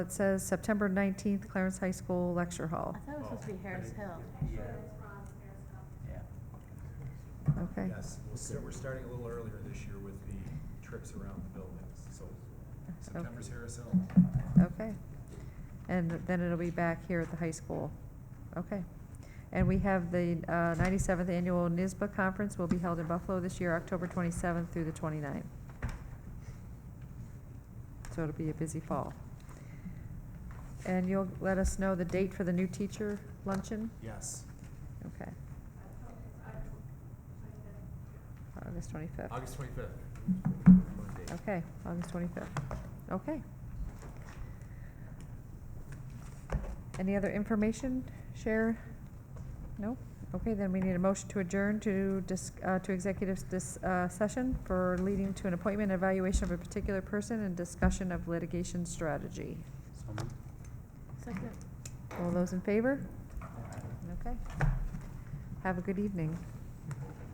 It says September 19th, Clarence High School Lecture Hall. I thought it was supposed to be Harris Hill. Okay. Yes, we'll start- we're starting a little earlier this year with the trips around the buildings, so Oh. September's Harris Hill. Okay. And then it'll be back here at the high school. Okay. And we have the uh, 97th Annual NISBA Conference will be held in Buffalo this year, October 27th through the 29th. So it'll be a busy fall. And you'll let us know the date for the new teacher luncheon? Yes, Okay. August 25th. August twenty-fifth. Okay, August twenty-fifth. Okay. Any other information, share? No? Okay, then we need a motion to adjourn to dis, uh, to executive dis, uh, session for leading to an appointment, evaluation of a particular person, and discussion of litigation strategy. Second. All those in favor? Okay. Have a good evening.